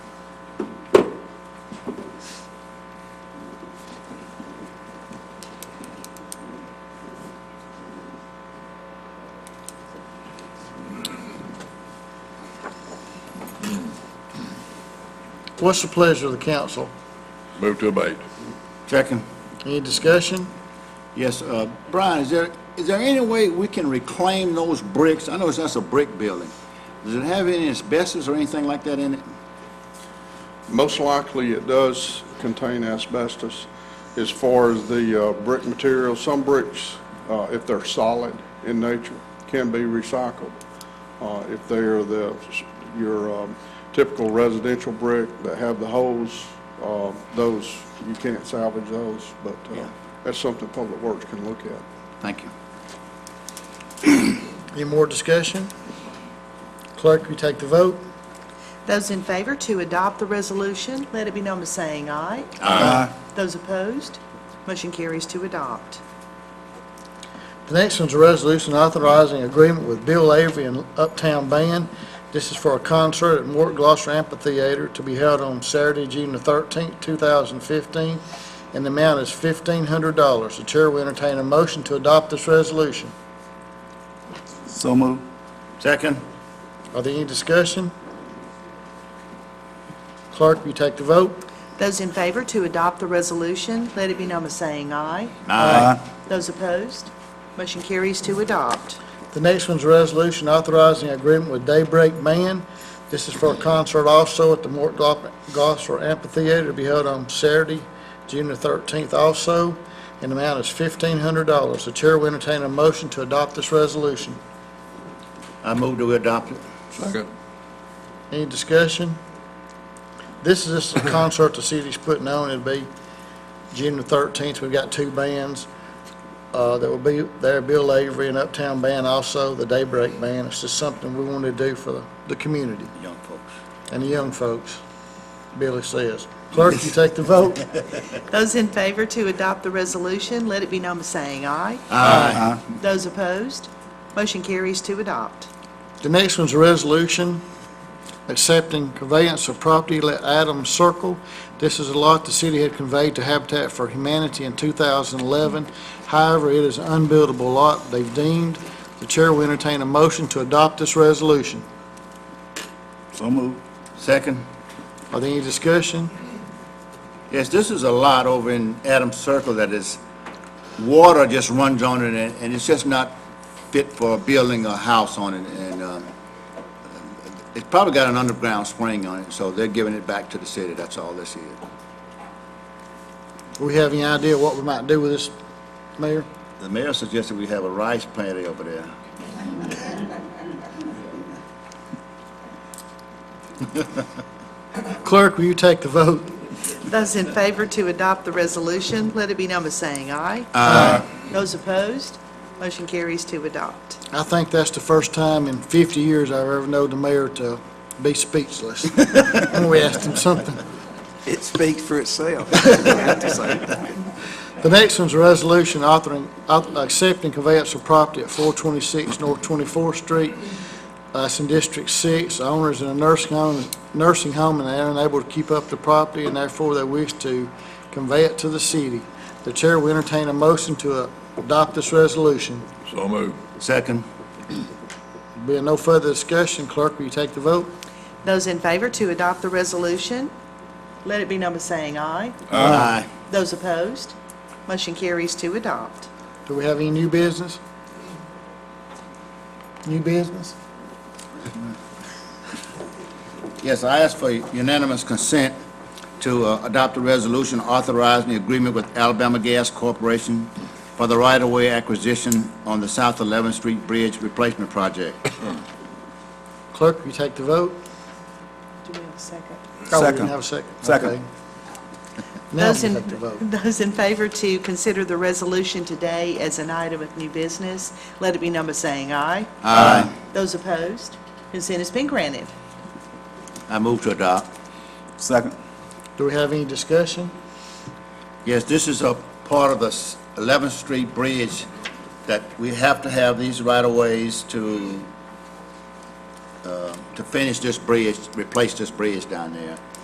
What's the pleasure of the council? Move to abate. Second. Any discussion? Yes, uh, Brian, is there, is there any way we can reclaim those bricks? I know it's that's a brick building. Does it have any asbestos or anything like that in it? Most likely, it does contain asbestos. As far as the uh, brick material, some bricks, uh, if they're solid in nature, can be recycled. Uh, If they are the, your um, typical residential brick that have the holes, uh, those, you can't salvage those, but uh, Yeah. that's something Public Works can look at. Thank you. Any more discussion? Clerk, will you take the vote? Those in favor to adopt the resolution, let it be known by saying aye. Aye. Those opposed, motion carries to adopt. The next one's a resolution authorizing agreement with Bill Avery and Uptown Band. This is for a concert at Mort Gloucester Amphitheater to be held on Saturday, June the 13th, 2015, and the amount is $1,500. The chair will entertain a motion to adopt this resolution. So moved. Second. Are there any discussion? Clerk, will you take the vote? Those in favor to adopt the resolution, let it be known by saying aye. Aye. Those opposed, motion carries to adopt. The next one's a resolution authorizing agreement with Daybreak Man. This is for a concert also at the Mort Glo- Gosler Amphitheater to be held on Saturday, June the 13th also, and the amount is $1,500. The chair will entertain a motion to adopt this resolution. I move to adopt it. Second. Any discussion? This is just a concert the city's putting on. It'll be June the 13th. We've got two bands uh, that will be there, Bill Avery and Uptown Band also, the Daybreak Band. It's just something we want to do for the- the community Young folks. and the young folks, Billy says. Clerk, you take the vote. Those in favor to adopt the resolution, let it be known by saying aye. Aye. Those opposed, motion carries to adopt. The next one's a resolution accepting conveyance of property at Adams Circle. This is a lot the city had conveyed to Habitat for Humanity in 2011. However, it is an unbuildable lot they've deemed. The chair will entertain a motion to adopt this resolution. So moved. Second. Are there any discussion? Yes, this is a lot over in Adams Circle that is, water just runs on it, and and it's just not fit for building a house on it, and um, it's probably got an underground spring on it, so they're giving it back to the city, that's all this is. Do we have any idea what we might do with this, Mayor? The mayor suggested we have a rice plant over there. Clerk, will you take the vote? Those in favor to adopt the resolution, let it be known by saying aye. Those opposed, motion carries to adopt. I think that's the first time in 50 years I've ever known the mayor to be speechless when we asked him something. It speaks for itself. I have to say. The next one's a resolution authoring, auth- accepting conveyance of property at 426 North 24th Street. Uh, It's in District 6. The Owner is in a nursing home, nursing home, and they're unable to keep up the property, and therefore they wish to convey it to the city. The chair will entertain a motion to uh, adopt this resolution. So move. Second. Being no further discussion, clerk, will you take the vote? Those in favor to adopt the resolution, let it be known by saying aye. Aye. Those opposed, motion carries to adopt. Do we have any new business? New business? Yes, I ask for unanimous consent to uh, adopt a resolution authorizing the agreement with Alabama Gas Corporation for the right-of-way acquisition on the South 11th Street Bridge Replacement Project. Clerk, will you take the vote? Do we have a second? Oh, we didn't Second. have a second. Second. Okay. Now we Those in, take the vote. those in favor to consider the resolution today as an item of new business, let it be known by saying aye. Aye. Those opposed, consent has been granted. I move to adopt. Second. Do we have any discussion? Yes, this is a part of the s- 11th Street Bridge that we have to have these right-of-ways to, uh, to finish this bridge, replace this bridge down there.